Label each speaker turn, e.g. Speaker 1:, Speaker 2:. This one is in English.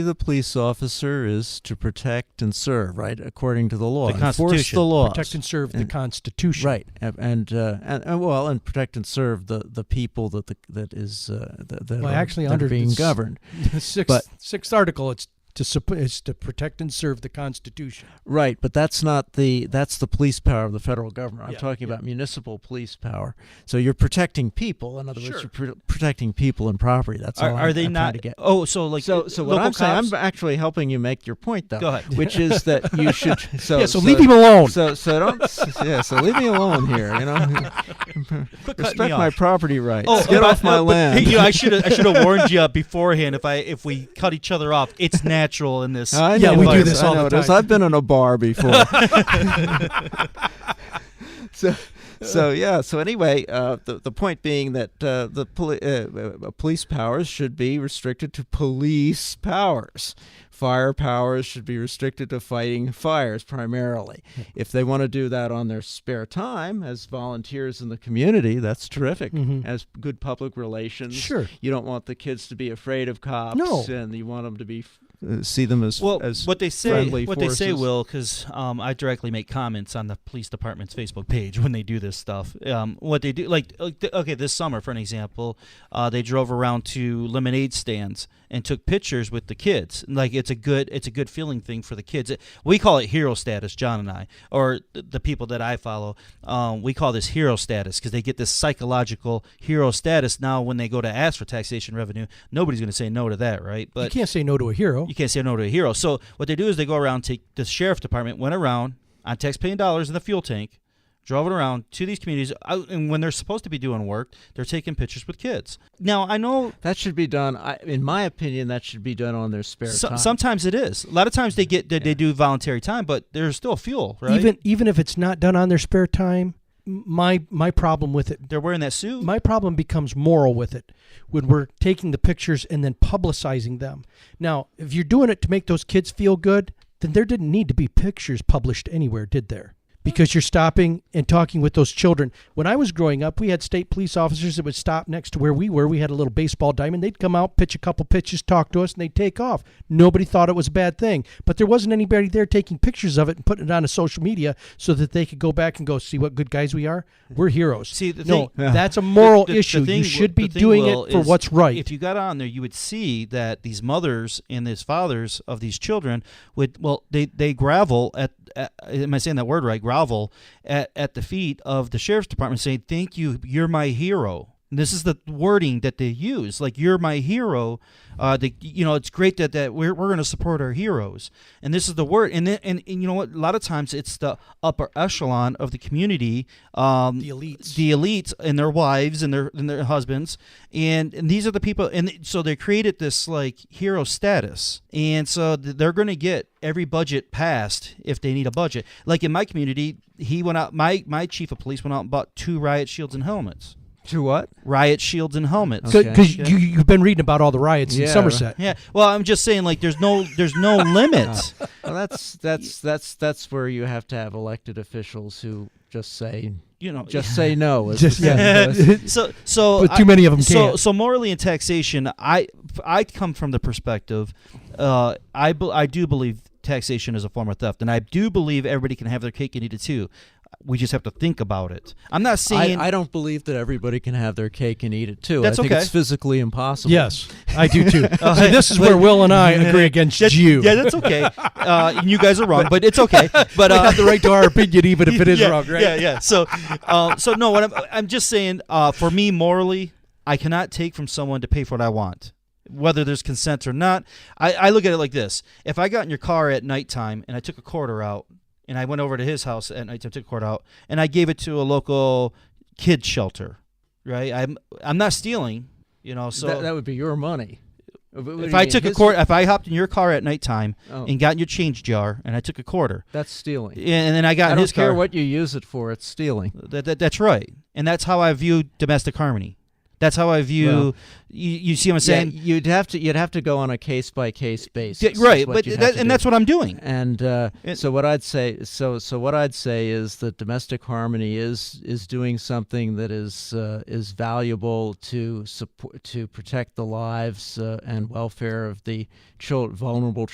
Speaker 1: the police officer is to protect and serve, right, according to the law.
Speaker 2: The
Speaker 1: Enforce
Speaker 2: Constitution.
Speaker 1: the laws.
Speaker 3: protect and serve the
Speaker 1: And-
Speaker 3: Constitution.
Speaker 1: Right, and and, uh, and and, well, and protect and serve the, the people that the, that is uh, that, that
Speaker 3: Well,
Speaker 1: are,
Speaker 3: actually,
Speaker 1: that are
Speaker 3: under
Speaker 1: being
Speaker 3: this-
Speaker 1: governed.
Speaker 3: The sixth,
Speaker 1: But-
Speaker 3: sixth article, it's to supp- it's to protect and serve the Constitution.
Speaker 1: Right, but that's not the that's the police power of the federal government. I'm
Speaker 3: Yeah,
Speaker 1: talking
Speaker 3: yeah.
Speaker 1: about municipal police power. So you're protecting people. In other
Speaker 3: Sure.
Speaker 1: words, you're pr- protecting people and property. That's
Speaker 2: Are,
Speaker 1: all
Speaker 2: are
Speaker 1: I'm-
Speaker 2: they
Speaker 1: I'm trying
Speaker 2: not?
Speaker 1: to get.
Speaker 2: Oh, so like
Speaker 1: so
Speaker 2: uh,
Speaker 1: so what
Speaker 2: local
Speaker 1: I'm saying,
Speaker 2: cops?
Speaker 1: I'm actually helping you make your point though,
Speaker 2: Go ahead.
Speaker 1: which is that you should. So
Speaker 3: yeah, so, leave him alone.
Speaker 1: So so don't yeah. So leave me alone here. You know,
Speaker 2: Quit cutting me
Speaker 1: respect my
Speaker 2: off.
Speaker 1: property rights.
Speaker 2: Oh,
Speaker 1: Get
Speaker 2: but-
Speaker 1: off my
Speaker 2: but-
Speaker 1: land.
Speaker 2: Hey, you know, I should I should have warned you beforehand. If I if we cut each other off, it's natural in this.
Speaker 1: I
Speaker 3: Yeah,
Speaker 1: know
Speaker 3: we
Speaker 1: it
Speaker 3: do
Speaker 1: is.
Speaker 3: this
Speaker 1: I
Speaker 3: all
Speaker 1: know
Speaker 3: the
Speaker 1: it is.
Speaker 3: time.
Speaker 1: I've been in a bar before. so, so yeah. So anyway, uh, the the point being that uh, the poli- uh, uh, police powers should be restricted to police powers. Fire powers should be restricted to fighting fires primarily. If they want to do that on their spare time as volunteers in the community, that's terrific.
Speaker 3: Mhm.
Speaker 1: As good public relations,
Speaker 3: Sure.
Speaker 1: You don't want the kids to be afraid of cops,
Speaker 3: No.
Speaker 1: and you want them to be uh, see them as
Speaker 2: well,
Speaker 1: as
Speaker 2: what they say,
Speaker 1: friendly
Speaker 2: what they say,
Speaker 1: forces.
Speaker 2: Will, because um, I directly make comments on the police department's Facebook page when they do this stuff. Um, what they do, like, like th- okay, this summer, for an example, uh, they drove around to lemonade stands and took pictures with the kids. Like, it's a good, it's a good feeling thing for the kids. It- we call it hero status, John and I, or th- the people that I follow. Um, we call this hero status because they get this psychological hero status. Now, when they go to ask for taxation revenue, nobody's going to say no to that, right?
Speaker 3: you
Speaker 2: But
Speaker 3: can't say no to a hero.
Speaker 2: you can't say no to a hero. So what they do is they go around, take the sheriff department went around on taxpaying dollars in the fuel tank, drove it around to these communities, out, and when they're supposed to be doing work, they're taking pictures with kids. Now I know
Speaker 1: That should be done. I, in my opinion, that should be done on their spare
Speaker 2: so-
Speaker 1: time.
Speaker 2: sometimes it is. A lot of times they get they, they do voluntary time, but there's still fuel, right?
Speaker 3: Even even if it's not done on their spare time, m- my my problem with it
Speaker 2: they're wearing that suit.
Speaker 3: my problem becomes moral with it when we're taking the pictures and then publicizing them. Now, if you're doing it to make those kids feel good, then there didn't need to be pictures published anywhere, did there? Because you're stopping and talking with those children. When I was growing up, we had state police officers that would stop next to where we were. We had a little baseball diamond. They'd come out, pitch a couple pitches, talk to us, and they'd take off. Nobody thought it was a bad thing, but there wasn't anybody there taking pictures of it and putting it on a social media so that they could go back and go, see what good guys we are? We're heroes.
Speaker 2: See, the
Speaker 3: no,
Speaker 2: thing-
Speaker 3: that's a moral
Speaker 2: The- the- the
Speaker 3: issue.
Speaker 2: thing
Speaker 3: you
Speaker 2: w-
Speaker 3: should
Speaker 2: the
Speaker 3: be
Speaker 2: thing,
Speaker 3: doing
Speaker 2: Will,
Speaker 3: it for
Speaker 2: is
Speaker 3: what's right.
Speaker 2: If you got on there, you would see that these mothers and these fathers of these children would well, they they gravel at, at am I saying that word right? Grovel at at the feet of the sheriff's department, saying, "Thank you, you're my hero." And This is the wording that they use, like "you're my hero." Uh, the, you know, it's great that that we're, we're going to support our heroes, and this is the word. And, then, and and you know what? A lot of times it's the upper echelon of the community, um,
Speaker 3: The elites.
Speaker 2: the elites and their wives and their and their husbands and, and these are the people and so they created this like hero status and so th- they're going to get every budget passed if they need a budget like in my community he went out my my chief of police went out and bought two riot shields and helmets
Speaker 1: to what?
Speaker 2: riot shields and helmets
Speaker 1: Okay.
Speaker 3: because
Speaker 2: Okay.
Speaker 3: you, you've been reading about all the riots in
Speaker 1: Yeah.
Speaker 3: Somerset.
Speaker 2: yeah well i'm just saying like there's no there's no limit
Speaker 1: Well, that's that's that's that's where you have to have elected officials who just say
Speaker 2: you know
Speaker 1: just say no. is
Speaker 3: Just-
Speaker 1: the saying.
Speaker 3: yeah.
Speaker 2: so so
Speaker 3: but too many of them
Speaker 2: so
Speaker 3: can't.
Speaker 2: so morally in taxation i i come from the perspective uh i bel i do believe taxation is a form of theft and i do believe everybody can have their cake and eat it too we just have to think about it i'm not saying
Speaker 1: I, I don't believe that everybody can have their cake and eat it too.
Speaker 2: That's
Speaker 1: I think
Speaker 2: okay.
Speaker 1: it's physically impossible.
Speaker 3: yes, I do too. See, this is where Will and I agree against
Speaker 2: That's-
Speaker 3: you.
Speaker 2: yeah that's okay uh and you guys are wrong but it's okay but
Speaker 3: we
Speaker 2: uh
Speaker 3: have the right to our opinion, even if it is
Speaker 2: yeah,
Speaker 3: wrong, right?
Speaker 2: Yeah, yeah. So, uh, so no, what I'm, I'm just saying, uh, for me morally, I cannot take from someone to pay for what I want, whether there's consent or not. I, I look at it like this: if I got in your car at nighttime and I took a quarter out, and I went over to his house at nighttime, took a quarter out, and I gave it to a local kid shelter, right? I'm I'm not stealing, you know. So.
Speaker 1: that, that would be your money. But what do
Speaker 2: if
Speaker 1: you
Speaker 2: I
Speaker 1: mean,
Speaker 2: took a
Speaker 1: his-
Speaker 2: quarter, if I hopped in your car at nighttime
Speaker 1: Oh.
Speaker 2: and got in your change jar and I took a quarter,
Speaker 1: that's stealing.
Speaker 2: and, and then I got
Speaker 1: I
Speaker 2: in
Speaker 1: don't
Speaker 2: his
Speaker 1: care
Speaker 2: car,
Speaker 1: what you use it for. It's stealing.
Speaker 2: That, that, that's right. And that's how I view domestic harmony. That's how I view.
Speaker 1: Well-
Speaker 2: you, you see what I'm
Speaker 1: Yeah,
Speaker 2: saying?
Speaker 1: you'd have to you'd have to go on a case by case basis,
Speaker 2: Yeah, right,
Speaker 1: is what
Speaker 2: but
Speaker 1: you'd have
Speaker 2: that,
Speaker 1: to
Speaker 2: and
Speaker 1: do.
Speaker 2: that's what I'm doing.
Speaker 1: And uh,
Speaker 2: It-
Speaker 1: so what I'd say, so so what I'd say is that domestic harmony is is doing something that is uh, is valuable to support to protect the lives uh, and welfare of the chil- vulnerable